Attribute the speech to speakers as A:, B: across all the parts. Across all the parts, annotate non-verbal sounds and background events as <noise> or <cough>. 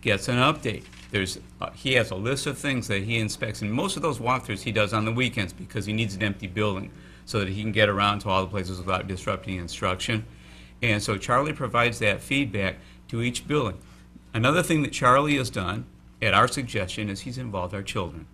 A: gets an update. There's, uh, he has a list of things that he inspects, and most of those walkthroughs he does on the weekends because he needs an empty building so that he can get around to all the places without disrupting instruction. And so Charlie provides that feedback to each building. Another thing that Charlie has done, at our suggestion, is he's involved our children.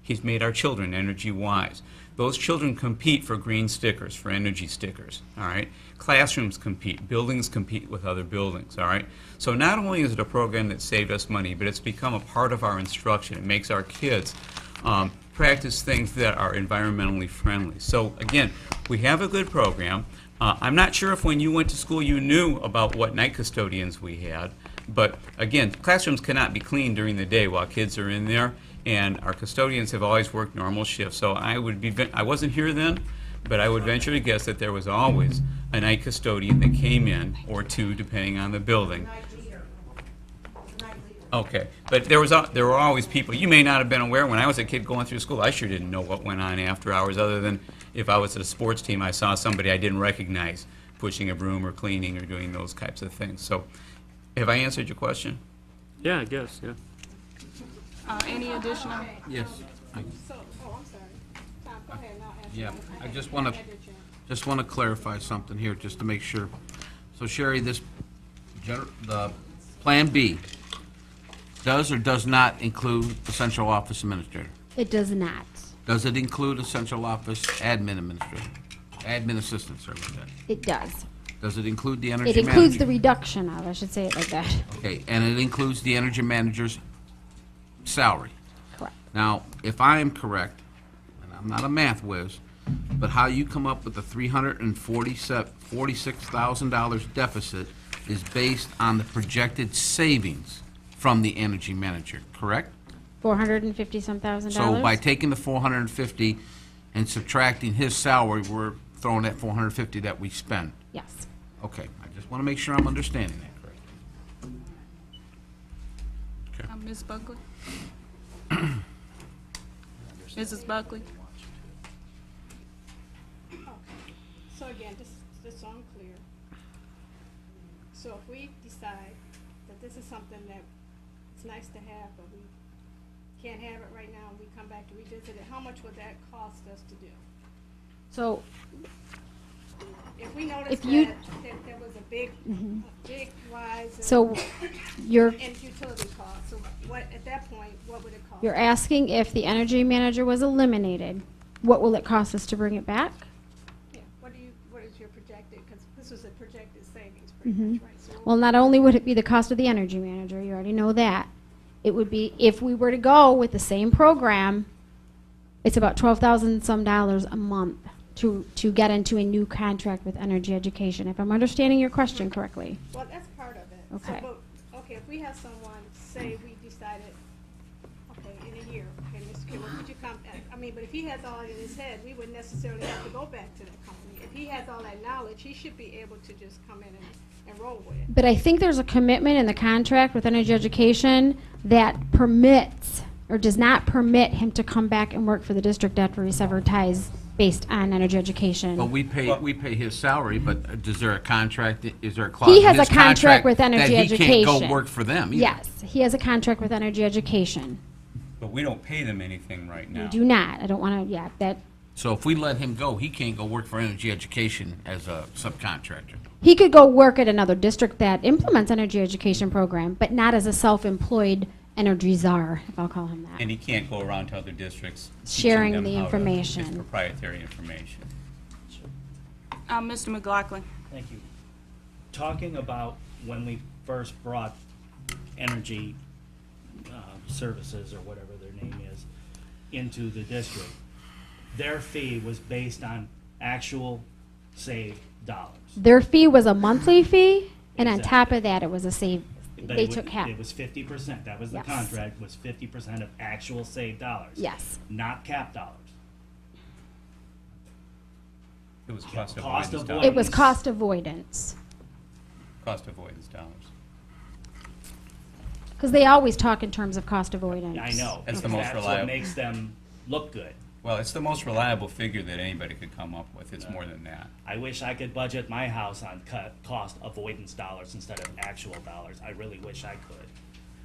A: He's made our children energy wise. Those children compete for green stickers, for energy stickers, all right? Classrooms compete, buildings compete with other buildings, all right? So not only is it a program that saved us money, but it's become a part of our instruction. It makes our kids um, practice things that are environmentally friendly. So again, we have a good program. Uh, I'm not sure if when you went to school you knew about what night custodians we had, but again, classrooms cannot be cleaned during the day while kids are in there, and our custodians have always worked normal shifts. So I would be, I wasn't here then, but I would venture to guess that there was always a night custodian that came in, or two, depending on the building. Okay, but there was, al- there were always people, you may not have been aware, when I was a kid going through school, I sure didn't know what went on after hours, other than if I was at a sports team, I saw somebody I didn't recognize pushing a broom or cleaning or doing those types of things. So, have I answered your question?
B: Yeah, I guess, yeah.
C: Uh, any additional?
D: Yes, I
E: So, oh, I'm sorry. Tom, go ahead and I'll ask. you.
D: Yeah, I
E: had-
D: just wanna-
E: had your chance.
D: just want to clarify something here, just to make sure. So Sherry, this, gener- the Plan B does or does not include the central office administrator?
F: It does not.
D: Does it include a central office admin administrator? Admin assistant, sorry about that.
F: It does.
D: Does it include the energy
F: It
D: manager?
F: includes the reduction of, I should say it like that.
D: Okay, and it includes the energy manager's salary?
F: Correct.
D: Now, if I am correct, and I'm not a math whiz, but how you come up with the three hundred and forty-six thousand dollars deficit is based on the projected savings from the energy manager, correct?
F: 450 some thousand dollars?
D: So by taking the four hundred and fifty and subtracting his salary, we're throwing that four hundred and fifty that we spend.
F: Yes.
D: Okay, I just want to make sure I'm understanding that correctly.
C: Uh, Ms. Buckley? <coughs> Mrs. Buckley?
E: So again, just, just so I'm clear. So if we decide that this is something that it's nice to have, but we can't have it right now, and we come back to revisit it, how much would that cost us to do?
F: So
E: If we notice
F: If you- Mm-hmm.
E: that, that there was a big, a big rise in.
F: So you're,
E: In utility costs, so what, at that point, what would it cost?
F: you're asking if the energy manager was eliminated, what will it cost us to bring it back?
E: Yeah, What do you, what is your projected, because this was a projected savings pretty much, right? So
F: Mm-hmm. Well, not only would it be the cost of the energy manager, you already know that. It would be, if we were to go with the same program, it's about 12,000 some dollars a month to, to get into a new contract with Energy Education, if I'm understanding your question correctly.
E: Well, that's part of it. So,
F: Okay.
E: but- Okay, if we have someone, say we decided, okay, in a year, okay, Mr. Kimball, could you come, back? I mean, but if he has all in his head, we wouldn't necessarily have to go back to that company. If he has all that knowledge, he should be able to just come in and, and roll with it.
F: But I think there's a commitment in the contract with Energy Education that permits or does not permit him to come back and work for the district after he severed ties based on Energy
D: But
F: Education.
D: we pay, we pay his salary, but is there a contract, is there a clause?
F: He
D: in
F: has a
D: his
F: contract with Energy Education.
D: That he can't go work for them either?
F: Yes, he has a contract with Energy Education.
A: But we don't pay them anything right now.
F: We do not, I don't want to, yeah, that,
D: So if we let him go, he can't go work for Energy Education as a subcontractor.
F: he could go work at another district that implements Energy Education program, but not as a self-employed energy czar, if I'll call him that.
A: And he can't go around to other districts. teaching
F: Sharing
A: them
F: the
A: how to- It's
F: information.
A: proprietary information.
C: Uh, Mr. McLaughlin?
G: Thank you. Talking about when we first brought energy um, services, or whatever their name is, into the district, their fee was based on actual saved dollars.
F: Their fee was a monthly fee, and on
G: Exactly.
F: top of that, it was a save,
G: But
F: they
G: it wa-
F: took half.
G: It was fifty percent, that was the
F: Yes.
G: contract, was fifty percent of actual saved dollars.
F: Yes.
G: Not cap dollars.
A: It was cost
G: Cost
A: avoidance
G: avoidance.
F: It
A: dollars.
F: was cost avoidance,
A: Cost avoidance dollars.
F: because they always talk in terms of cost avoidance.
G: I know.
A: That's the most
G: That's what
A: reliable.
G: makes them look good.
A: Well, it's the most reliable figure that anybody could come up with. It's more than that.
G: I wish I could budget my house on cut, cost avoidance dollars instead of actual dollars. I really wish I could.